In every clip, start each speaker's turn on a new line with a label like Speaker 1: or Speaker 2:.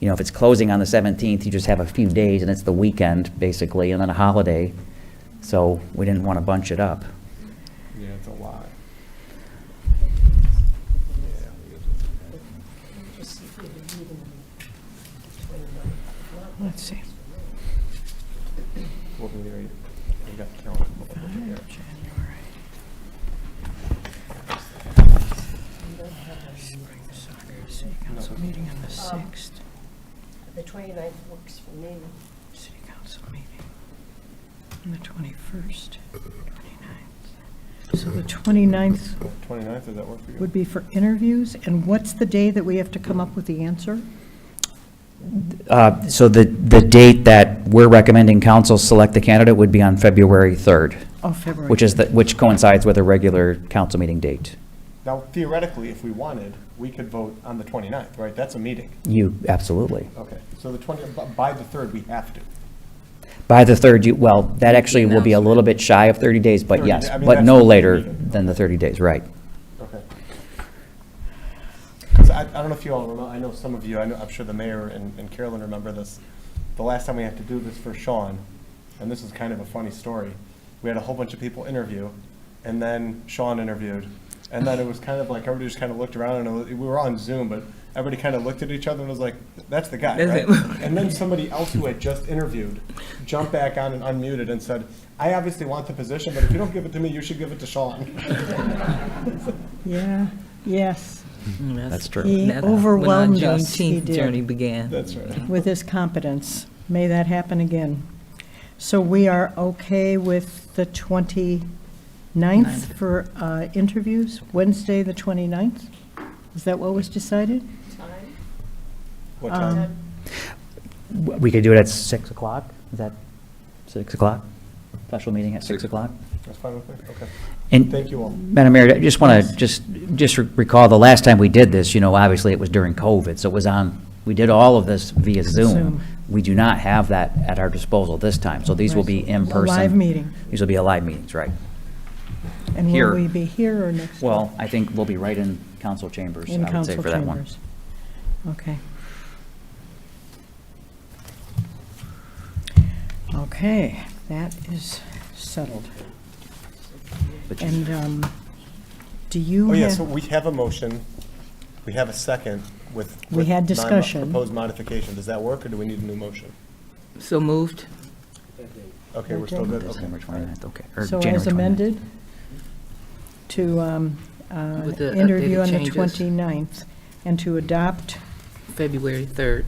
Speaker 1: you know, if it's closing on the 17th, you just have a few days, and it's the weekend, basically, and then a holiday. So we didn't want to bunch it up.
Speaker 2: Yeah, it's a lot.
Speaker 3: Let's see.
Speaker 2: What we already- we got count over
Speaker 3: January.
Speaker 2: there.
Speaker 3: Spring soccer, city council meeting on the
Speaker 4: Um,
Speaker 3: sixth,
Speaker 4: The 29th works for me.
Speaker 3: city council meeting on the twenty-first, twenty-ninth. So the twenty-ninth
Speaker 2: 29th, does that work for you?
Speaker 3: would be for interviews, and what's the day that we have to come up with the answer?
Speaker 1: Uh, So the, the date that we're recommending council select the candidate would be on February 3rd,
Speaker 3: Oh, February.
Speaker 1: which is, the- which coincides with a regular council meeting date.
Speaker 2: Now theoretically, if we wanted, we could vote on the 29th, right? That's a meeting.
Speaker 1: You, absolutely.
Speaker 2: Okay, so the 20, bu- by the 3rd, we have to.
Speaker 1: By the 3rd, you, well, that actually will be a little bit shy of 30 days, but
Speaker 2: 30
Speaker 1: yes,
Speaker 2: I mean,
Speaker 1: but
Speaker 2: that's
Speaker 1: no
Speaker 2: what we
Speaker 1: later
Speaker 2: needed.
Speaker 1: than the 30 days, right.
Speaker 2: Okay. 'Cause I, I don't know if you all remember, I know some of you, I know, I'm sure the mayor and and Carolyn remember this. The last time we had to do this for Sean, and this is kind of a funny story, we had a whole bunch of people interview, and then Sean interviewed. And then it was kind of like, everybody just kind of looked around, and it was- we were on Zoom, but everybody kind of looked at each other and was like, that's the guy, right? And then somebody else who had just interviewed jumped back on and unmuted and said, I obviously want the position, but if you don't give it to me, you should give it to Sean.
Speaker 3: Yeah, yes,
Speaker 1: That's true.
Speaker 3: He
Speaker 5: That's when our
Speaker 3: overwhelmed us, he
Speaker 5: Juneteenth
Speaker 3: did.
Speaker 5: journey began.
Speaker 2: That's right.
Speaker 3: with his competence. May that happen again. So we are okay with the 29th for uh, interviews, Wednesday, the 29th? Is that what was decided?
Speaker 4: Time?
Speaker 2: What
Speaker 3: Um,
Speaker 2: time?
Speaker 1: W- We could do it at 6 o'clock, is that 6 o'clock? Special meeting at 6 o'clock?
Speaker 2: That's fine with me, okay.
Speaker 1: And
Speaker 2: Thank you all.
Speaker 1: Madam Mayor, I just want to, just, just recall, the last time we did this, you know, obviously it was during COVID, so it was on, we did all of this via Zoom.
Speaker 3: Zoom.
Speaker 1: We do not have that at our disposal this time, so these will be in
Speaker 3: A
Speaker 1: person.
Speaker 3: Live meeting.
Speaker 1: These will be a live meetings, right.
Speaker 3: And
Speaker 1: Here.
Speaker 3: will we be here or next? door?
Speaker 1: Well, I think we'll be right in council chambers,
Speaker 3: In
Speaker 1: I would say,
Speaker 3: council
Speaker 1: for that one.
Speaker 3: chambers. Okay. Okay, that is settled.
Speaker 1: But you-
Speaker 3: And um, do you
Speaker 2: Oh, yeah,
Speaker 3: have?
Speaker 2: so we have a motion, we have a second with.
Speaker 3: We
Speaker 2: with
Speaker 3: had
Speaker 2: my mo-
Speaker 3: discussion.
Speaker 2: Proposed modification, does that work, or do we need a new motion?
Speaker 5: So moved?
Speaker 2: Okay, we're still good, okay.
Speaker 1: December 29th, okay. or
Speaker 3: So
Speaker 1: January
Speaker 3: as
Speaker 1: 29th.
Speaker 3: amended, to um, uh,
Speaker 5: With the
Speaker 3: interview
Speaker 5: updated
Speaker 3: on the
Speaker 5: changes.
Speaker 3: 29th, and to adopt
Speaker 5: February 3rd.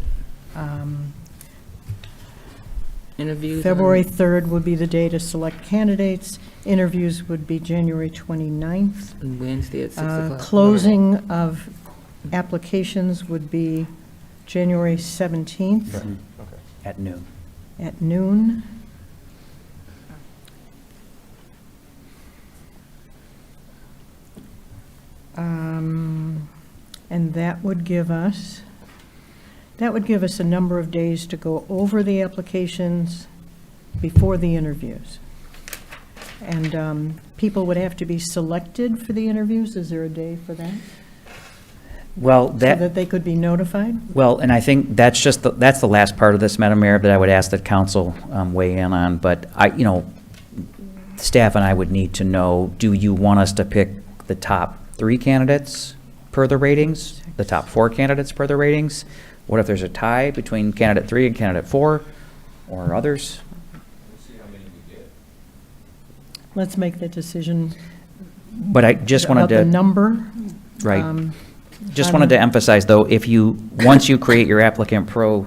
Speaker 3: um,
Speaker 5: Interviews? on-
Speaker 3: February 3rd would be the day to select candidates, interviews would be January 29th,
Speaker 5: on Wednesday at 6
Speaker 3: Uh,
Speaker 5: o'clock.
Speaker 3: closing of applications would be January 17th
Speaker 2: Right, Okay.
Speaker 1: At noon.
Speaker 3: at noon. Um, And that would give us, that would give us a number of days to go over the applications before the interviews. And um, people would have to be selected for the interviews. Is there a day for that?
Speaker 1: Well,
Speaker 3: So
Speaker 1: that.
Speaker 3: that they could be notified?
Speaker 1: Well, and I think that's just, the- that's the last part of this, Madam Mayor, that I would ask that council um, weigh in on, but I, you know, staff and I would need to know, do you want us to pick the top three candidates per the ratings? The top four candidates per the ratings? What if there's a tie between candidate three and candidate four, or others?
Speaker 3: Let's make that decision.
Speaker 1: But I just wanted
Speaker 3: About the
Speaker 1: to,
Speaker 3: number.
Speaker 1: right,
Speaker 3: um,
Speaker 1: just
Speaker 3: I'm-
Speaker 1: wanted to emphasize, though, if you, once you create your applicant pro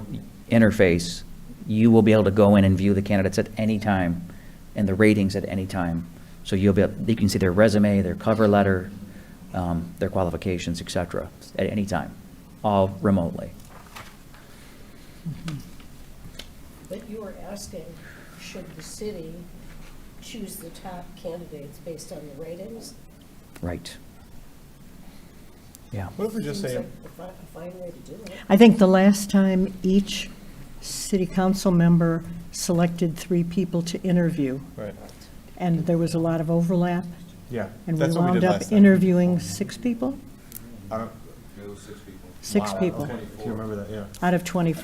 Speaker 1: interface, you will be able to go in and view the candidates at any time and the ratings at any time. So you'll be, able- you can see their resume, their cover letter, um, their qualifications, et cetera, at any time, all remotely.
Speaker 4: But you were asking, should the city choose the top candidates based on the ratings?
Speaker 1: Right. Yeah.
Speaker 2: What if we just
Speaker 4: Seems
Speaker 2: say,
Speaker 4: like A fi- a fine way to do it.
Speaker 3: I think the last time each city council member selected three people to interview,
Speaker 2: right,
Speaker 3: and there was a lot of overlap,
Speaker 2: yeah,
Speaker 3: and we
Speaker 2: that's what we
Speaker 3: wound
Speaker 2: did
Speaker 3: up
Speaker 2: last time.
Speaker 3: interviewing six people?
Speaker 2: I don't-
Speaker 3: Six
Speaker 2: Wow,
Speaker 3: people
Speaker 2: okay. Do you remember that? Yeah.
Speaker 3: out of 24.